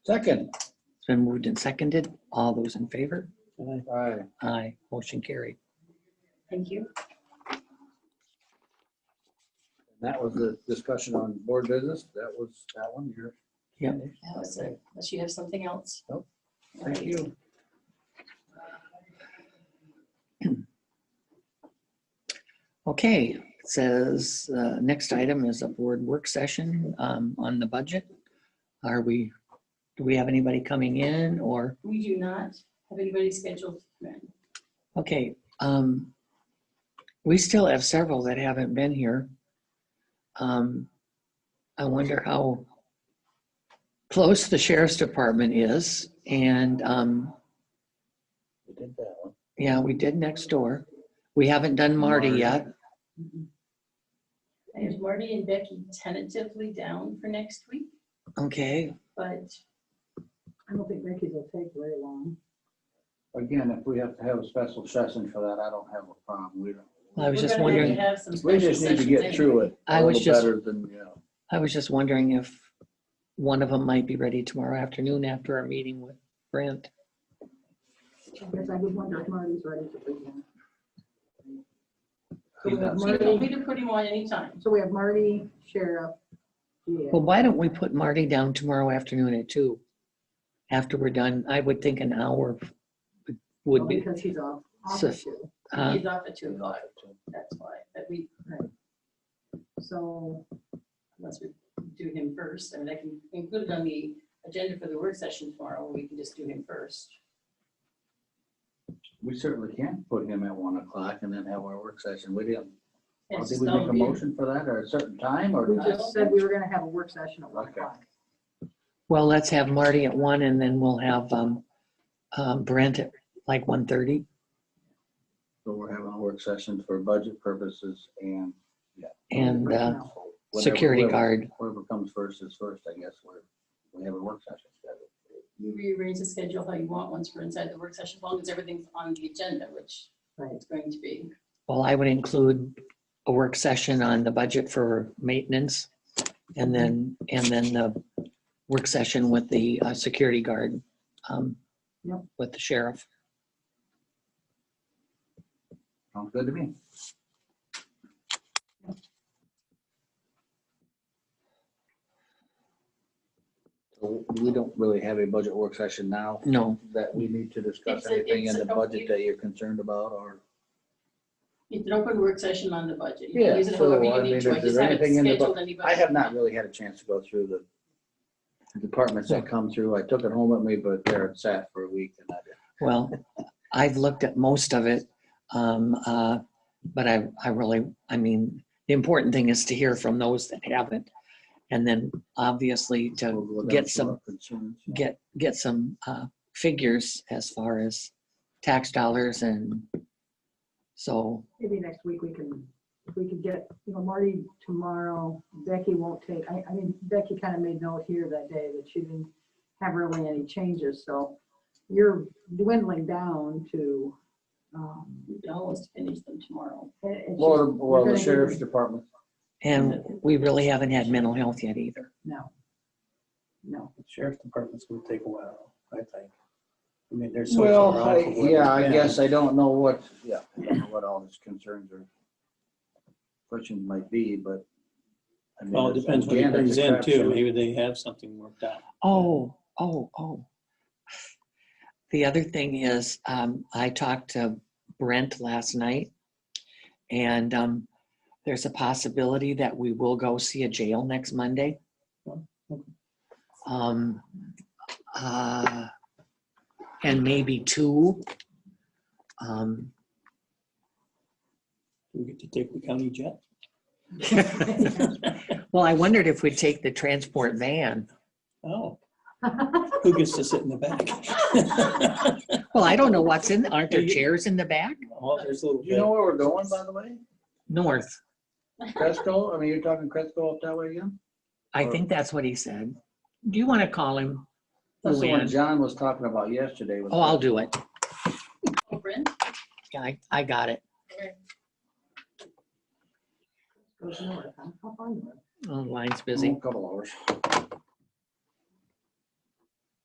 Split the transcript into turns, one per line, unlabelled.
Second.
It's been moved and seconded. All those in favor?
Aye.
Aye. Motion carried.
Thank you.
That was the discussion on board business. That was that one. You're-
Yep.
That was it. Unless you have something else.
Nope.
All
Thank
right.
you.
Okay, it says, uh, next item is a board work session um, on the budget. Are we, do we have anybody coming in or,
We do not have anybody scheduled. Right.
okay. um, We still have several that haven't been here. Um, I wonder how close the sheriff's department is and um,
We did that one.
yeah, we did next door. We haven't done Marty
Marty.
yet.
I have Marty and Becky tentatively down for next week,
Okay,
but
I don't think Mickey's will take very long.
Again, if we have to have a special session for that, I don't have a problem. We don't.
I was
we're
just
gonna have to
wondering,
have some
We
special
just need to
sessions
get
anyway.
through it. a
I was
little
just-
Better than, you know.
I was just wondering if one of them might be ready tomorrow afternoon after our meeting with Brent.
Because I would wonder if Marty's ready to begin. So
He's
we
not
have
We can-
Marty,
we can put him on anytime.
so we have Marty, Sheriff, DA.
Well, why don't we put Marty down tomorrow afternoon at two? After we're done, I would think an hour would be,
Because he's off, off
So-
issue.
uh,
He's off at two o'clock. That's why, but we,
So
unless we do him first, I mean, I can include it on the agenda for the work session tomorrow, we can just do him first.
We certainly can put him at one o'clock and then have our work session with him.
And it's
Did
just
we
all
make a
be-
motion for that or a certain time or?
we
not?
just said we were gonna have a work session at one
Okay.
o'clock.
well, let's have Marty at one and then we'll have um, um, Brent at like one thirty.
So we're having a work session for budget purposes and.
And uh,
whatever-
security
whoever-
guard.
Whoever comes first is first, I guess, we're, we have a work session scheduled.
You rearrange the schedule how you want once we're inside the work session, as long as everything's on the agenda, which
Right.
it's going to be.
Well, I would include a work session on the budget for maintenance and then, and then the work session with the uh, security guard, um,
Yep.
with the sheriff.
Sounds good to me. So We don't really have a budget work session now
No,
that we need to discuss
It's a-
anything in
it's
the
a-
budget that you're concerned about or.
It's an open work session on the budget. You
Yeah,
can use it
so,
however
I
you
mean,
need to. I
if there's
just haven't
anything in the bu-
scheduled anybody.
I have not really had a chance to go through the departments that come through. I took it home with me, but there it sat for a week and I didn't.
well, I've looked at most of it. Um, uh, but I, I really, I mean, the important thing is to hear from those that haven't. And then obviously to
We'll go down
Get
to
some-
our concerns.
get, get some, uh, figures as far as tax dollars and so
Maybe next week we can, if we could get, you know, Marty tomorrow, Becky won't take, I, I mean, Becky kind of made note here that day that she didn't have really any changes, so you're dwindling down to, um,
We can almost finish them tomorrow.
it- it's just-
Well, the- well,
We're
the
gonna
sheriff's
do-
department,
And we really haven't had mental health yet either.
No. No.
Sheriff's Department's gonna take a while, I think. I mean, there's. something
well,
wrong
I-
with what
yeah, I
we've
guess I don't know what, yeah, I don't know what all his concerns or questions might be, but. I mean,
been. Well, it
it's-
depends what he
again, it's
brings
a
in too.
crapshoot.
Maybe they have something worked out.
Oh, oh, oh. The other thing is, um, I talked to Brent last night and, um, there's a possibility that we will go see a jail next Monday. Um, uh, and maybe two. Um,
Do we get to take the county jet?
well, I wondered if we'd take the transport van.
Oh, who gets to sit in the back?
Well, I don't know what's in, aren't there chairs in the back?
Oh, there's a little
Do you know
bit.
where we're going, by the way?
North.
Cresco? I mean, you're talking Cresco up that way again?
I
Or-
think that's what he said. Do you want to call him?
That's the one
Luann?
John was talking about yesterday. was
Oh, I'll do it.
Oh, Brent?
Yeah, I, I got it.
Okay.
Goes north, huh? How far north?
Oh, Line's
a
busy.
Couple hours.